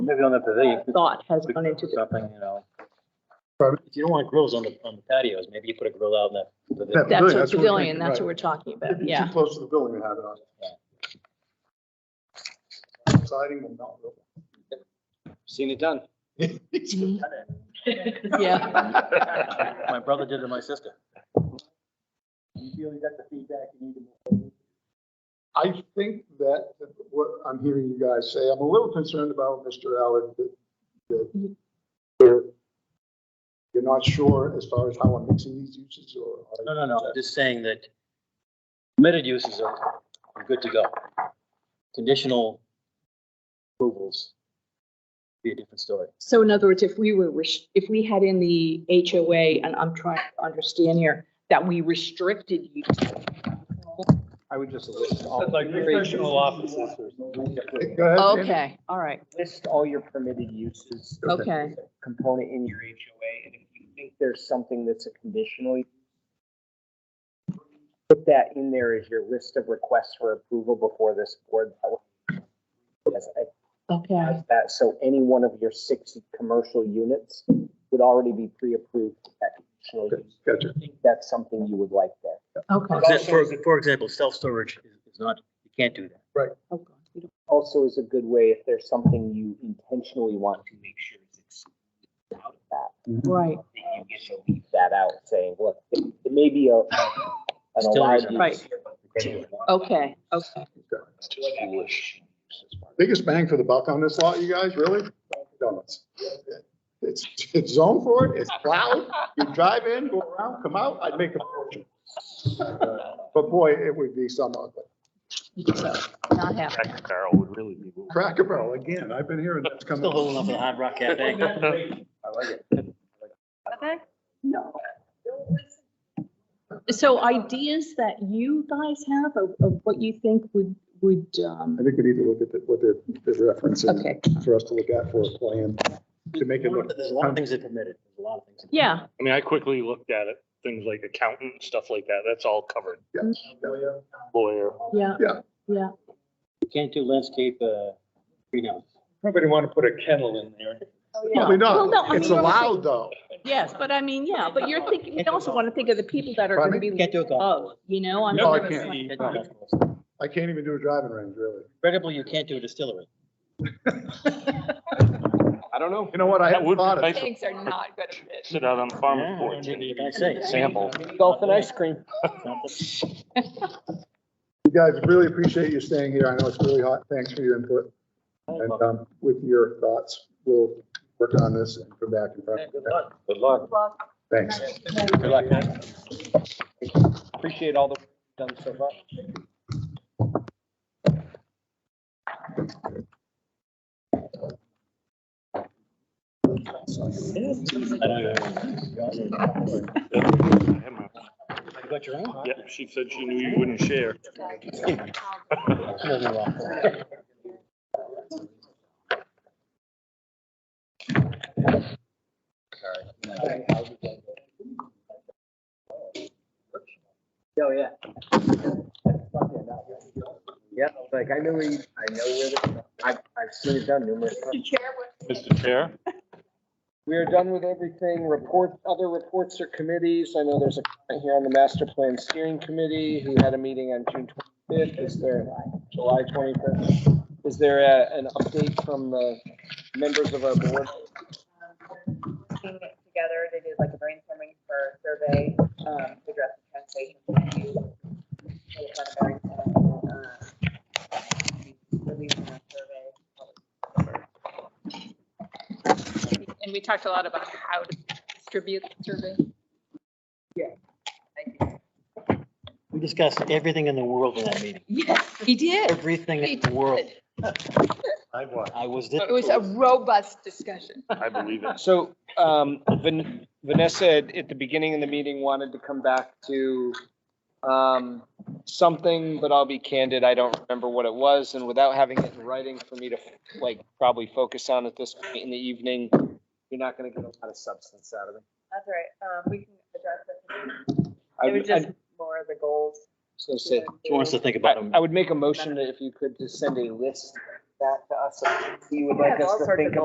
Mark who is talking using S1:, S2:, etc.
S1: Maybe on the pavilion. we-
S2: thought has
S1: we
S2: gone into
S1: put
S2: the
S1: Something, you know.
S3: Pardon?
S1: If you don't want grills on the, on the patios, maybe you put a grill out in the pavilion.
S3: Yeah.
S2: That's a
S3: Pavilion, that's what we're
S2: pavilion,
S3: thinking,
S2: that's
S3: right.
S2: what we're talking
S3: If
S2: about,
S3: you're
S2: yeah.
S3: Too close to the building, you have it on. Siding will not. work.
S1: Seen it done.
S2: Yeah,
S1: My brother did it to my sister. You feel you got the feedback you need to
S3: I think that what I'm hearing you guys say, I'm a little concerned about Mr. Allen, that,
S2: Mm-hmm.
S3: that you're, you're not sure as far as how I'm mixing these uses or.
S1: No, no, no, I'm just saying that permitted uses are are good to go. Conditional approvals be a different story.
S2: so in other words, if we were, res- if we had in the HOA, and I'm trying to understand here, that we restricted you.
S1: I would just
S4: Like recreational offices or something.
S3: Go ahead.
S2: Okay, all right,
S5: list all your permitted uses.
S2: okay,
S5: Component in your HOA, and if you think there's something that's a conditional. use, Put that in there as your list of requests for approval before this board. That way- Yes, I
S2: okay.
S5: have that, so any one of your six commercial units would already be pre-approved. for that conditional use.
S3: Gotcha.
S5: I think That's something you would like there.
S2: Okay.
S1: For, for example, self-storage is not, you can't do that.
S2: Okay. We don't-
S5: Also is a good way if there's something you intentionally want to make sure is excluded out of that.
S2: Right,
S5: that you get to leave that out, saying, look, it it may be a, an
S1: Still
S5: allowed
S1: reasonable.
S5: use.
S2: Right. okay, okay.
S3: Biggest bang for the buck on this lot, you guys, really? Dunkin' Donuts. It's, it's zoned for it, it's plowed, you drive in, go around, come out, I'd make a fortune. Uh, But boy, it would be some ugly.
S2: So, Not happening.
S3: Cracker Barrel, again, I've been hearing that's coming.
S1: Still holding up the Hard Rock Cafe.
S2: So ideas that you guys have of, of what you think would, would, um,
S3: I think we need to look at the- what the, the reference is
S2: okay,
S3: for us to look at for a plan to make it look.
S1: There's a lot of things that are permitted, there's a lot of things.
S2: yeah,
S4: I mean, I quickly looked at it, things like accountant, and stuff like that, that's all covered, lawyer.
S2: yeah,
S3: Yeah.
S2: yeah.
S1: You can't do landscape, uh, greenhouse.
S4: Nobody want to put a kennel in there.
S3: Probably
S2: Well, no,
S3: not.
S2: I
S3: It's
S2: mean,
S3: allowed, though.
S2: Yes, but I mean, yeah, but you're thinking, you also want to think of the people that are going to
S3: Pardon
S2: be,
S1: Can't do a golf.
S2: oh, you know, I'm.
S3: No, I
S2: it's
S3: can't.
S2: like-
S1: Can't do a
S2: oh.
S1: golf course.
S3: I can't even do a driving range, really.
S1: Incredible, you can't do a distillery.
S4: I don't know.
S3: You know what? I
S4: That
S3: hadn't
S4: would be
S3: thought of.
S4: nice.
S6: Pigs are not good at it.
S4: Sit out on the farmer's porch.
S1: Yeah, you don't say.
S4: Sample.
S5: Golf and ice cream.
S3: You guys, really appreciate you staying here. I know it's really hot. Thanks for your input. And um, with your thoughts, we'll work on this and come back in front.
S1: Good luck. Good luck.
S3: Thanks.
S1: Good luck, man.
S5: Appreciate all the work done so far.
S1: I don't know. You got your own?
S4: Yeah, she said she knew you wouldn't share.
S1: No, no, no.
S5: Oh, yeah. Yeah, like I know where you, I know where, the- I've, I've seen it done numerous times.
S4: Mr. Chair?
S5: We are done with everything. Report, other reports or committees. I know there's a comment here on the master plan steering committee who had a meeting on June twenty-fifth. Is there July twenty-fifth? Is there a, an update from the members of our board?
S6: Putting Um, it together, they did like a brainstorming for a survey, um, to address the translation. issue. They had a very, uh, releasing a survey. And we talked a lot about how to distribute the survey.
S1: We discussed everything in the world in that meeting,
S6: Yes, he did.
S1: everything in the world. I was there.
S6: It was a robust discussion.
S4: I believe it.
S5: So, um, Van- Vanessa, at at the beginning of the meeting, wanted to come back to, um, something, but I'll be candid, I don't remember what it was, and without having it in writing for me to, like, probably focus on at this point in the evening, you're not gonna get a lot of substance out of it.
S6: That's all right. Um, we can address it.
S5: I
S6: It was
S5: would, I
S6: just more of the goals.
S5: was gonna say,
S1: She wants to think
S5: I,
S1: about them.
S5: I would make a motion that if you could just send a list
S6: back to us, if you would
S5: Yeah,
S6: like us
S5: all
S6: to
S5: sorts
S6: think
S5: of